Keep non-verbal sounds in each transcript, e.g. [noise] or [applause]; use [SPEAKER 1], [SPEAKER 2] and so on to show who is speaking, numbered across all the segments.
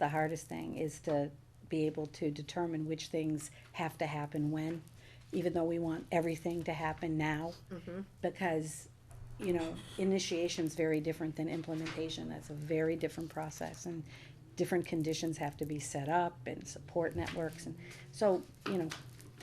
[SPEAKER 1] the hardest thing is to be able to determine which things have to happen when, even though we want everything to happen now. Because, you know, initiation's very different than implementation, that's a very different process, and different conditions have to be set up and support networks, and, so, you know,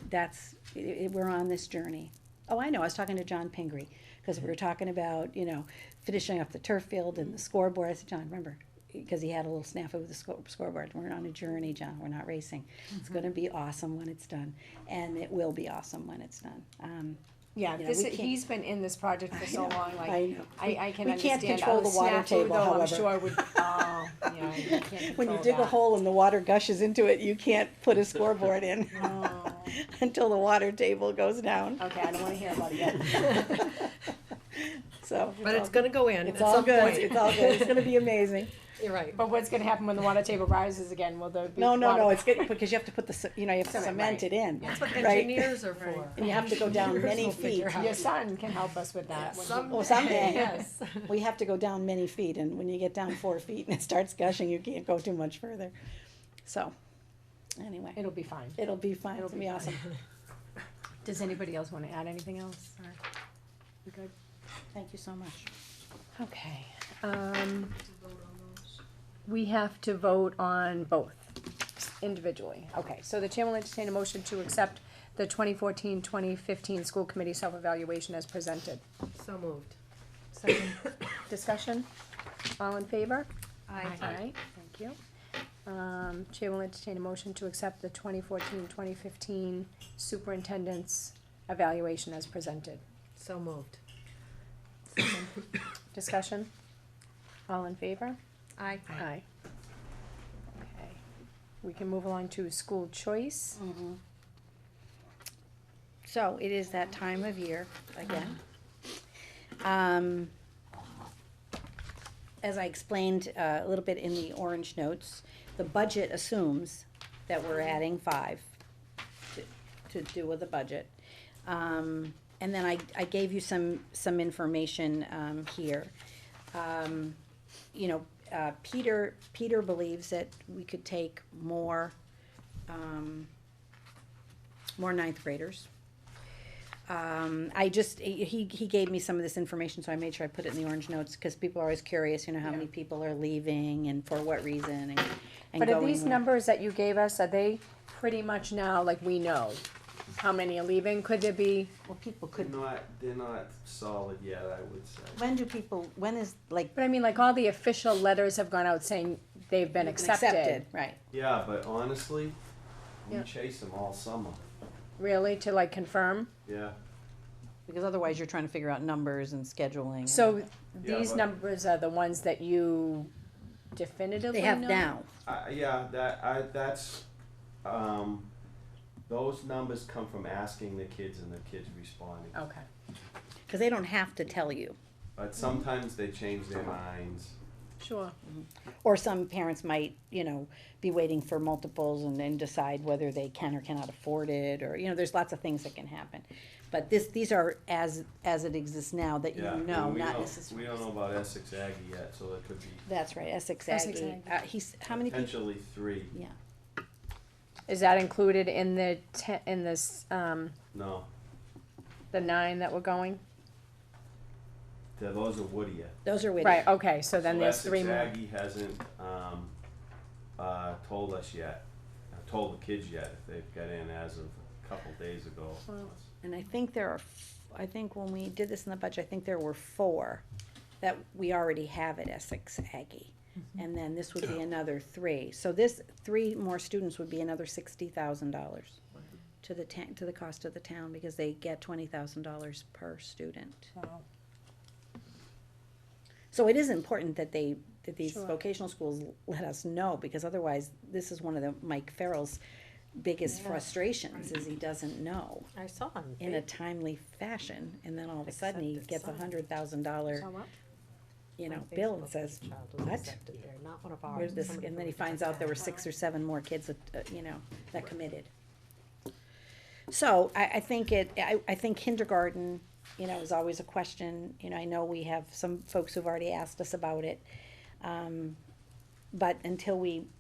[SPEAKER 1] that's, i i we're on this journey. Oh, I know, I was talking to John Pingree, cause we were talking about, you know, finishing up the turf field and the scoreboard, I said, John, remember, because he had a little snafu with the score, scoreboard. We're on a journey, John. We're not racing. It's going to be awesome when it's done, and it will be awesome when it's done. Um,
[SPEAKER 2] Yeah,
[SPEAKER 1] You know,
[SPEAKER 2] this,
[SPEAKER 1] we
[SPEAKER 2] is-
[SPEAKER 1] can't-
[SPEAKER 2] he's been in this project for so long,
[SPEAKER 1] I
[SPEAKER 2] like,
[SPEAKER 1] know.
[SPEAKER 2] I, I can
[SPEAKER 1] We can't
[SPEAKER 2] understand.
[SPEAKER 1] control the
[SPEAKER 2] Oh,
[SPEAKER 1] water
[SPEAKER 2] snafu,
[SPEAKER 1] table,
[SPEAKER 2] though,
[SPEAKER 1] however.
[SPEAKER 2] I'm
[SPEAKER 1] [laughs]
[SPEAKER 2] sure would, oh, yeah, you can't control
[SPEAKER 1] When you dig a
[SPEAKER 2] that.
[SPEAKER 1] hole and the water gushes into it, you can't put a scoreboard in [laughs]
[SPEAKER 2] Oh,
[SPEAKER 1] until the water table goes
[SPEAKER 2] [laughs]
[SPEAKER 1] down.
[SPEAKER 2] Okay, I don't wanna hear about it yet.
[SPEAKER 1] [laughs] So,
[SPEAKER 3] But it's
[SPEAKER 1] all-
[SPEAKER 3] gonna go in at
[SPEAKER 1] it's all
[SPEAKER 3] some
[SPEAKER 1] good.
[SPEAKER 3] point.
[SPEAKER 1] It's all good. It's going to be amazing.
[SPEAKER 3] You're right.
[SPEAKER 2] But what's gonna happen when the water table rises again? Will there be?
[SPEAKER 1] No, no,
[SPEAKER 2] water- [laughs]
[SPEAKER 1] no. It's good because you have to put the ce- you know you have to
[SPEAKER 2] Cement,
[SPEAKER 1] cement it
[SPEAKER 2] right.
[SPEAKER 1] in,
[SPEAKER 3] That's what
[SPEAKER 1] right?
[SPEAKER 3] engineers are for.
[SPEAKER 1] And you have to go down
[SPEAKER 3] Engineers
[SPEAKER 1] many
[SPEAKER 3] will
[SPEAKER 1] feet.
[SPEAKER 3] figure out.
[SPEAKER 2] Your son can help us with that. when he-
[SPEAKER 1] Oh, someday.
[SPEAKER 3] [laughs] Yes.
[SPEAKER 1] We have to go down many feet, and when you get down four feet and it starts gushing, you can't go too much further. So, anyway.
[SPEAKER 2] It'll be fine.
[SPEAKER 1] It'll be fine,
[SPEAKER 2] It'll
[SPEAKER 1] it'll be awesome,
[SPEAKER 2] Does anybody else wanna add anything else? or we good?
[SPEAKER 1] [laughs] thank you so much.
[SPEAKER 2] Okay, um, we have to vote on both individually. Okay, so the chair will entertain a motion to accept the 2014-2015 school committee self-evaluation as presented.
[SPEAKER 3] So moved.
[SPEAKER 2] Second discussion, all in favor?
[SPEAKER 3] Aye.
[SPEAKER 2] Aye, thank you. Um, chair will entertain a motion to accept the 2014-2015 superintendent's evaluation as presented.
[SPEAKER 3] So moved.
[SPEAKER 2] Discussion, all in favor?
[SPEAKER 3] Aye.
[SPEAKER 2] Aye. Okay, we can move along to school choice.
[SPEAKER 1] So it is that time of year again. Um, as I explained uh, a little bit in the orange notes, the budget assumes that we're adding five to- to do with the budget. Um, and then I, I gave you some, some information, um, here. Um, you know, uh, Peter, Peter believes that we could take more, um, more ninth graders. Um, I just, he, he gave me some of this information, so I made sure I put it in the orange notes, cause people are always curious, you know, how many people are leaving and for what reason and, and
[SPEAKER 2] But
[SPEAKER 1] going.
[SPEAKER 2] are these
[SPEAKER 1] where.
[SPEAKER 2] numbers that you gave us, are they pretty much now, like, we know how many are leaving? Could there be,
[SPEAKER 1] Well, people could,
[SPEAKER 4] not they're not solid yet, I would say.
[SPEAKER 1] when do people, when is, like,
[SPEAKER 2] but I mean, like, all the official letters have gone out saying they've been accepted.
[SPEAKER 1] Right.
[SPEAKER 4] Yeah, but honestly, we
[SPEAKER 2] Yeah.
[SPEAKER 4] chase them all summer.
[SPEAKER 2] Really, to like confirm?
[SPEAKER 4] Yeah.
[SPEAKER 1] Because otherwise you're trying to figure out numbers and scheduling. and-
[SPEAKER 2] So
[SPEAKER 4] Yeah,
[SPEAKER 2] these
[SPEAKER 4] but-
[SPEAKER 2] numbers are the ones that you definitively
[SPEAKER 1] They
[SPEAKER 2] know?
[SPEAKER 1] have now,
[SPEAKER 4] I yeah, that I that's um those numbers come from asking the kids and the kids responding.
[SPEAKER 1] Oh.
[SPEAKER 2] Okay,
[SPEAKER 1] because they don't have to tell you.
[SPEAKER 4] But sometimes they change their minds.
[SPEAKER 2] sure.
[SPEAKER 1] Or some parents might, you know, be waiting for multiples and then decide whether they can or cannot afford it, or, you know, there's lots of things that can happen. But this, these are as, as it exists now that you
[SPEAKER 4] Yeah. and
[SPEAKER 1] know,
[SPEAKER 4] we
[SPEAKER 1] not
[SPEAKER 4] don't-
[SPEAKER 1] necessarily.
[SPEAKER 4] We don't know about Essex Aggie yet, so it could be
[SPEAKER 1] That's right, Essex
[SPEAKER 2] Essex
[SPEAKER 1] Aggie.
[SPEAKER 2] Aggie.
[SPEAKER 1] Uh, he's, how many people?
[SPEAKER 4] potentially three.
[SPEAKER 1] Yeah.
[SPEAKER 2] Is that included in the te- in this, um,
[SPEAKER 4] No.
[SPEAKER 2] the nine that were going?
[SPEAKER 4] th- Those are Woodier.
[SPEAKER 1] Those are with
[SPEAKER 2] Right, okay, so then
[SPEAKER 4] So
[SPEAKER 2] there's three
[SPEAKER 4] Essex
[SPEAKER 2] more.
[SPEAKER 4] Aggie hasn't um uh told us yet, uh, told the kids yet, if they've got in as of a couple days ago.
[SPEAKER 2] Well,
[SPEAKER 1] And I think there are, f- I think when we did this in the budget, I think there were four that we already have at Essex Aggie.
[SPEAKER 2] Mm-hmm.
[SPEAKER 1] And then this would be another three. So this, three more students would be another sixty thousand dollars to the ta- to the cost of the town because they get twenty thousand dollars per student.
[SPEAKER 2] Wow.
[SPEAKER 1] So it is important that they, that these
[SPEAKER 2] Sure.
[SPEAKER 1] vocational schools let us know because otherwise, this is one of the Mike Farrell's biggest frustrations is he doesn't know.
[SPEAKER 3] I saw him.
[SPEAKER 1] in a timely fashion, and then all of a sudden he
[SPEAKER 3] Accepted
[SPEAKER 1] gets a
[SPEAKER 3] son.
[SPEAKER 1] hundred thousand dollar,
[SPEAKER 2] So what?
[SPEAKER 1] you know,
[SPEAKER 3] My
[SPEAKER 1] bill and
[SPEAKER 3] Facebook
[SPEAKER 1] says,
[SPEAKER 3] child was
[SPEAKER 1] "What?
[SPEAKER 3] accepted there, Not one of ours.
[SPEAKER 1] where's this,
[SPEAKER 3] somebody
[SPEAKER 1] and
[SPEAKER 3] from
[SPEAKER 1] then he
[SPEAKER 3] a different
[SPEAKER 1] finds out there were
[SPEAKER 3] town.
[SPEAKER 1] six or seven more kids that, uh, you know, that committed. So I, I think it, I, I think kindergarten, you know, is always a question, you know, I know we have some folks who've already asked us about it. Um, but until we